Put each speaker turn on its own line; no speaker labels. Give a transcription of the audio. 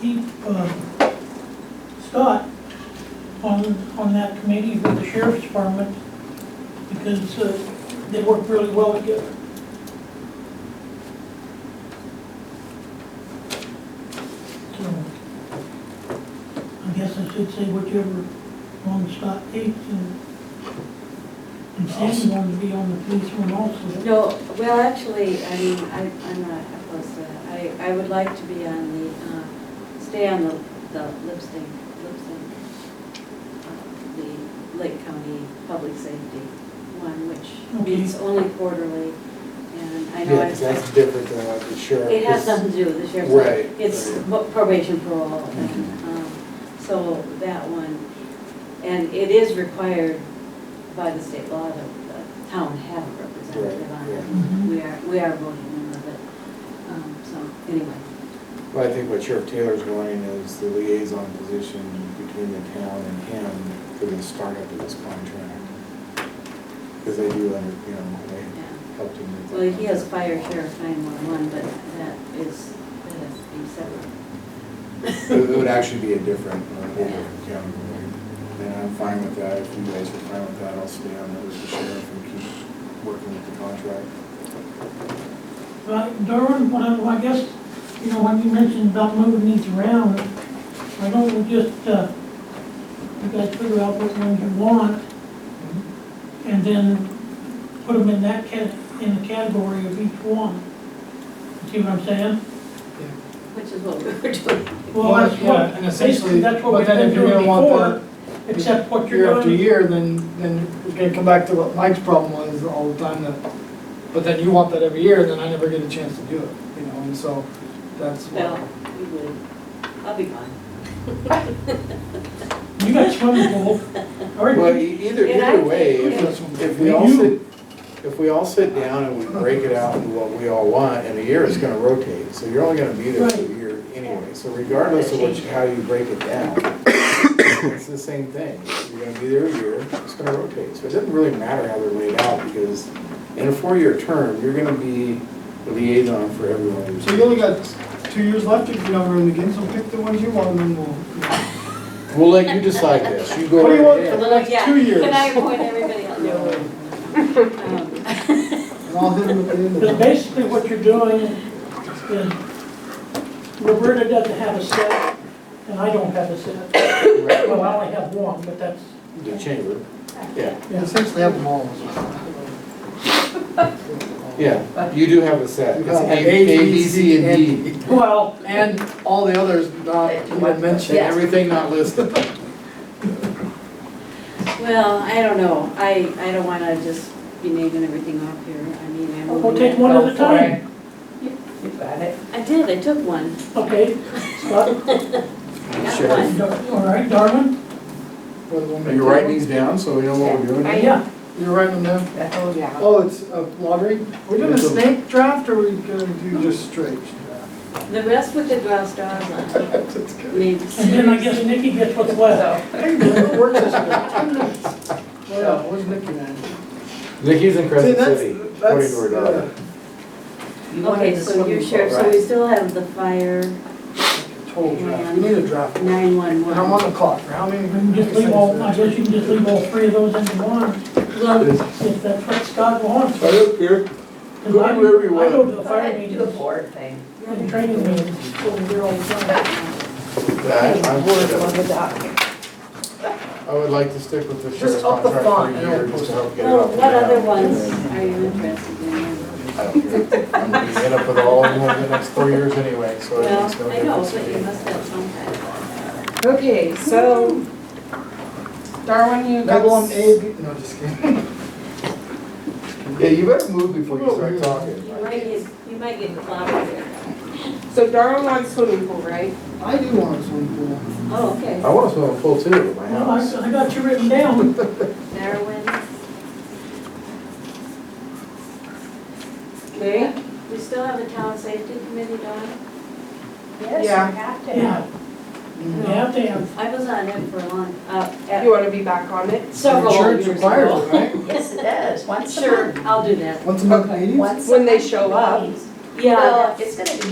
keep uh, Scott on, on that committee with the sheriff's department because uh, they work really well together. So I guess I should say whichever one Scott takes and and Sandy wanted to be on the police one also.
No, well, actually, I mean, I, I'm not opposed to that. I, I would like to be on the, uh, stay on the, the lip sync, lip sync, uh, the Lake County Public Safety one, which
Okay.
meets only quarterly, and I know
Yeah,
it's,
that's different than what the sheriff.
it has
is-
nothing to do with the sheriff's.
Right,
It's
right.
bu- probation parole, and, um, so that one, and it is required by the state law that the town have a representative on
Right,
it.
yeah.
Mhm.
We are, we are voting in of it, um, so, anyway.
Well, I think what Sheriff Taylor's wanting is the liaison position between the town and him for the startup of this contract. Because they do, under- you know, they
Yeah.
helped him with. that
Well, he has
contract.
fire sheriff nine-one-one, but that is, that has to be separate.
It it would actually be a different, uh, whole different county. And I'm fine with that, if you guys are fine with that, I'll stay on there with the sheriff and keep working with the contract.
Right, Darwin, what I, well, I guess, you know, when you mentioned about moving these around, why don't we just, uh, you guys figure out which ones you want, and then put them in that cat, in the category of each one. See what I'm saying?
Which is what we were doing.
Well, that's
yeah,
what,
and essentially,
basically, that's what
but
we've
then
been
if you're
doing
gonna want
before, except what
year
you're
after
doing.
year, then, then it's gonna come back to what Mike's problem was all the time, that, but then you want that every year, and then I never get a chance to do it, you know, and so, that's what.
Well, we would, I'll be gone.
You got swimming pool, or
Well, e- either,
And I
either way,
think-
if if we all sit, if we all sit down and we break it out into what we all want, in a year it's gonna rotate, so you're only gonna be there for a
Right.
year anyway. So regardless of what, you- how you break it down, it's the same thing. You're gonna be there a year, it's gonna rotate. So it doesn't really matter how they're laid out, because in a four-year term, you're gonna be the liaison for everyone.
So you only got two years left if you don't run again, so pick the ones you want, and then we'll.
We'll let you decide this. You go.
What do you
right
want
ahead.
for the next
Yeah,
two years?
Can I
And
appoint everybody else? Um,
I'll hit them at the end of
Because
it.
basically what you're doing is, Roberta doesn't have a set, and I don't have a set. Well, I only have one, but that's,
The chamber, yeah,
You Essentially have them all.
yeah. You do have a set. It's A, A, B, C, and E. D.
well,
And all the others not even mentioned.
And everything not listed.
Well, I don't know, I, I don't wanna just be naming everything off here, I mean, I'm.
Well, we'll take one at a time.
You got it.
I did, I took one.
Okay, Scott,
one.
Dar- all right, Darwin?
Are you writing these down so we know what we're doing?
I-
Yeah,
You're writing them down?
That's all yeah.
Oh, it's a lottery? We're doing a snake draft or are we gonna do just straight?
The rest with the draw straws on,
That's
I
good.
mean,
and then I guess Nikki gets what's left.
Hey, man, it works this way. Ten minutes. Well, yeah, what's Nicky man?
Nikki's in
See,
Crescent
that's-
City, according
that's,
to her daughter.
You wanted
Okay,
the
so you're
swimming
sure,
pool,
so we
right?
still have the fire
uh, Total draft, we need a draft. And I'm on
nine-one-one.
the clock, for how many?
You can just leave all, I guess you can just leave all three of those into one,
uh,
Well,
if that's what Scott wants.
I don't care.
'Cause I-
Whatever you
I go
want.
to the
Go ahead
fire
and do the
meetings
board thing.
and training meetings over here all the time.
That, I'm
Board
sure.
on the dock.
I would like to stick with the sheriff's
up the
contract for
font,
a
you
year
know.
just to help get it
well,
off.
what
the
other
ground.
ones are you interested in?
I don't care. I'm gonna be hit up with all of them over the next four years anyway, so
Well,
it's no
I know,
difference.
but
to
you
me.
must have some kind of.
Okay, so Darwin, you got.
Got one A, B, no, just kidding.
Yeah, you better move before you start
You
talking.
might get, you might get clobbered there.
So Darwin wants swimming pool, right?
I do want a swimming pool.
Oh, okay.
I want to swim full too at my
Well, I,
house.
I got you written down.
Darwin.
Okay.
We still have a town safety committee, Dawn?
Yes, you
Yeah.
have to have.
Yeah, you have to have
I was on it for a long, uh,
You
at
wanna be back on it?
several
Insurance
years
requires it,
ago.
right?
Yes, it does, once a
Sure,
month.
I'll do that.
Once a month, ladies?
Once a
When they
month,
show up.
please.
Yeah,
Well, it's gonna be